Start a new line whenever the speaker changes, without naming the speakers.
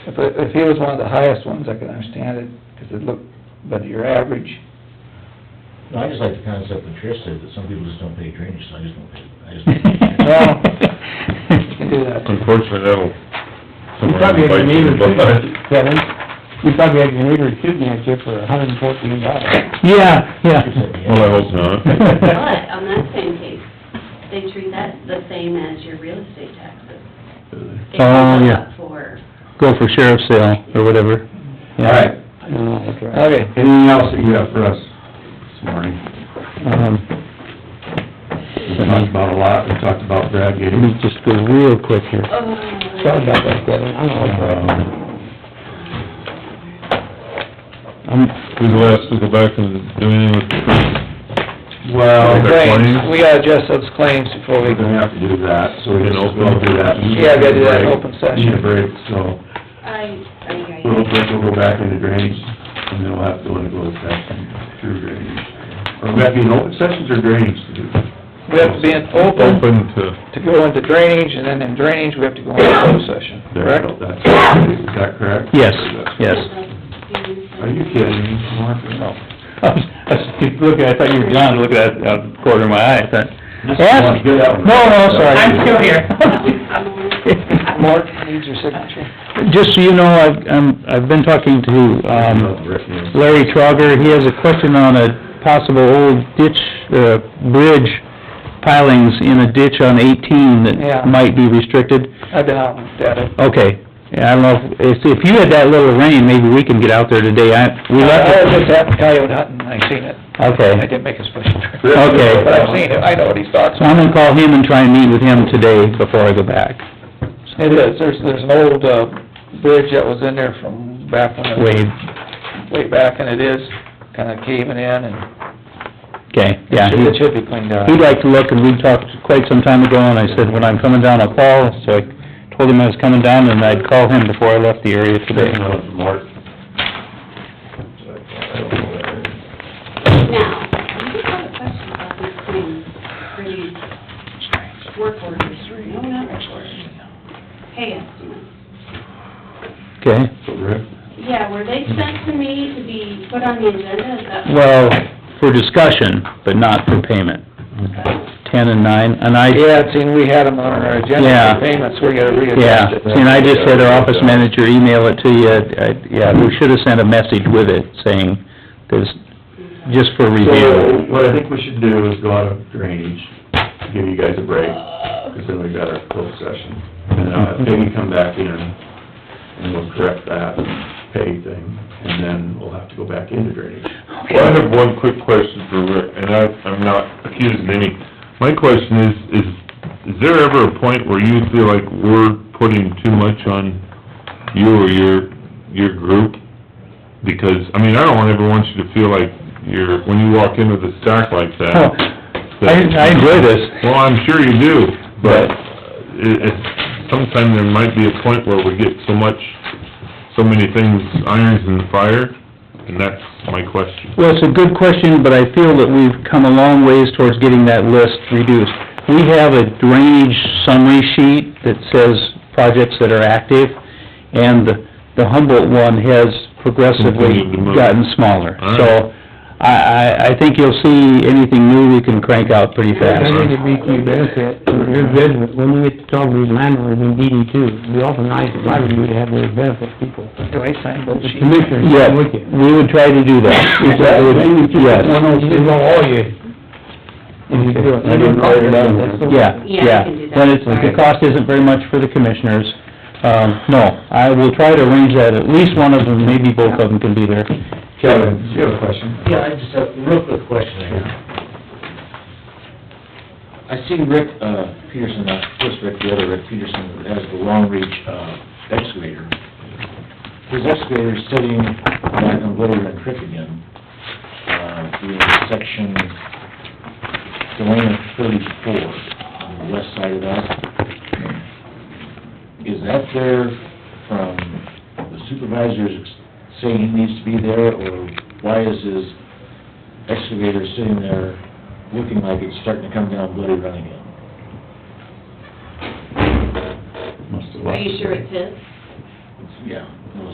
If, it- if he was one of the highest ones, I could understand it, 'cause it looked, but your average,
No, I just like the concept that Trish said, that some people just don't pay drainage, so I just don't pay, I just don't pay.
well, you can do that.
Unfortunately, that'll...
You probably had your meter, Kevin, you probably had your meter tube for a hundred and fourteen dollars.
Yeah,
She said, yeah.
Well, I hope not.
But on that same case, they treat that the same as your real estate taxes. It
Oh,
goes
yeah.
up For,
Go for sheriff's sale, or whatever.
All right,
Yeah.
Okay,
anything else that you have for us this morning?
Um,
We talked about a lot, we talked about Brad
let
getting...
me just go real quick here.
oh.
Sorry about that, Kevin, I don't
Um,
know. I'm,
We will ask to go back and do anything with
Well,
Okay.
we're
claims, we gotta adjust those claims before we,
gonna have to do that, so we
In
can
open?
all do that.
Yeah, we gotta do that in open session.
Need a break, so
I, I, I.
we'll, we'll go back into drainage, and then we'll have to go into closed session through drainage. Or we have to be in open sessions or drainage to do?
we have to be in open
open to,
to go into drainage, and then in drainage, we have to go into closed session,
There
correct?
you go, that's, is that correct?
yes, yes.
Are you kidding me, Mark?
No. I was, I was looking, I thought you were gone, looking at, it out of the corner of my eye, I thought, ask,
Get out.
no, no, sorry.
I'm still
here.
Mark needs your signature.
Just so you know, I've, I'm, I've been talking to, um,
Rick, you know.
Larry Trogger, he has a question on a possible old ditch, uh, bridge pilings in a ditch on eighteen
Yeah.
that might be restricted.
I've been out and looked at it.
Okay, yeah, I don't know, if, if you had that little rain, maybe we can get out there today, I, we
I was
left
just
it.
at coyote hunting, I seen it,
Okay,
I didn't make a special trip,
okay.
but I've seen it, I know what he's talking
So I'm gonna call him and try and meet with him today before I go back,
It is, there's, there's an old, uh, bridge that was in there from back when, it-
Wade,
way back, and it is kinda caving in, and
okay, yeah. he-
it should be cleaned out.
He'd like to look, and we talked quite some time ago, and I said, when I'm coming down, I'll call, so I told him I was coming down, and I'd call him before I left the area today.
Mark.
Now, I just have a question about these claims for these work orders, no, not work orders, pay estimates.
Okay,
So Rick,
Yeah, were they sent to me to be put on the agenda, is that?
well, for discussion, but not for payment, ten and nine, and I,
Yeah, and seen, we had them on our agenda
Yeah.
for payments, we gotta
yeah,
readjust it.
and I just had our office manager email it to you, I, yeah, we should have sent a message with it saying, this, just for
so
review.
what I think we should do is go out of drainage, give you guys a break, because then we got our closed session. And
Mm-hmm.
uh, Peggy come back in, and we'll correct that pay thing, and then we'll have to go back into drainage.
well, I have one quick question for Rick, and I, I'm not accusing any. My question is, is, is there ever a point where you feel like we're putting too much on you or your, your group? Because, I mean, I don't ever want you to feel like you're, when you walk into the stock like that,
I, I enjoy this.
Well, I'm sure you do, but it, it, sometime there might be a point where we get so much, so many things, irons in the fire, and that's my question.
Well, it's a good question, but I feel that we've come a long ways towards getting that list reduced. We have a drainage summary sheet that says projects that are active, and the Humboldt one has progressively
Continued to move.
gotten smaller.
All right.
So, I, I, I think you'll see anything new we can crank out pretty
I
fast.
think
It'd be to your benefit, for your benefit, when we get to talk to these landowners in DD two, it'd be awful nice if I were you to have those benefit people.
Do I sign both
The
sheets?
commissioners,
Yeah,
I'm with you.
we would try to do that.
Is that what you-
Yes.
You want all you.
Okay.
I didn't write it down.
Yeah,
Yeah,
we
yeah.
can do that.
But it's, the cost isn't very much for the commissioners. Um, no, I will try to arrange that. At least one of them, maybe both of them can be there.
Kevin, do you have a question?
Yeah, I just have a real quick question I have. I see Rick, uh, Peterson, not this Rick, the other Rick Peterson, has the long reach, uh, excavator. His excavator's sitting back on Little Red Creek again, uh, in section, Delana thirty-four, on the west side of that. Is that there from the supervisors saying he needs to be there, or why is his excavator sitting there looking like it's starting to come down Bloody Run again?
Must have
Are
left.
you sure it's his?
It's yeah.